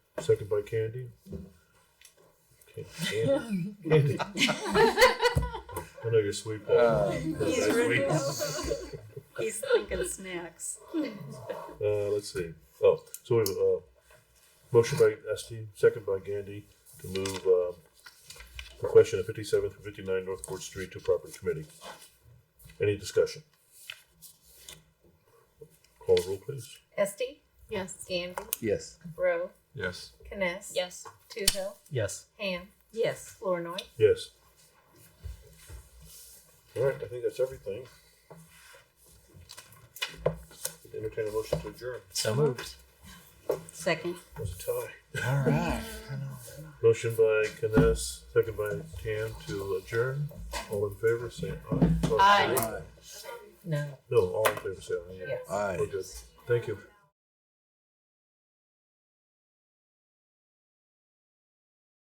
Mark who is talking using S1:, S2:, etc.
S1: Second by Candy. Okay, Candy. Candy. I know you're sweet. Paul.
S2: Uh,
S3: He's
S1: That's
S3: ready.
S1: sweet.
S3: He's thinking snacks.
S1: Uh, let's see. Oh, so we have a uh, motion by Esti, second by Gandy to move uh, the question of 57 through 59 North Court Street to proper committee. Any discussion? Call the roll, please.
S4: Esti,
S5: Yes.
S4: Gandy,
S2: yes.
S4: Rowe,
S2: Yes.
S4: Kness,
S5: Yes.
S4: Toohill,
S6: Yes.
S4: Ham,
S3: Yes.
S4: Flournoy.
S1: Yes. All right, I think that's everything. Entertain a motion to adjourn.
S6: So moved.
S3: Second.
S1: It was a tie.
S2: All right.
S1: Motion by Kness, second by Tam to adjourn. All in favor, say aye.
S3: Aye.
S2: All
S3: No.
S1: No, all in favor, say aye.
S4: Yes.
S2: right.
S1: We're good. Thank you.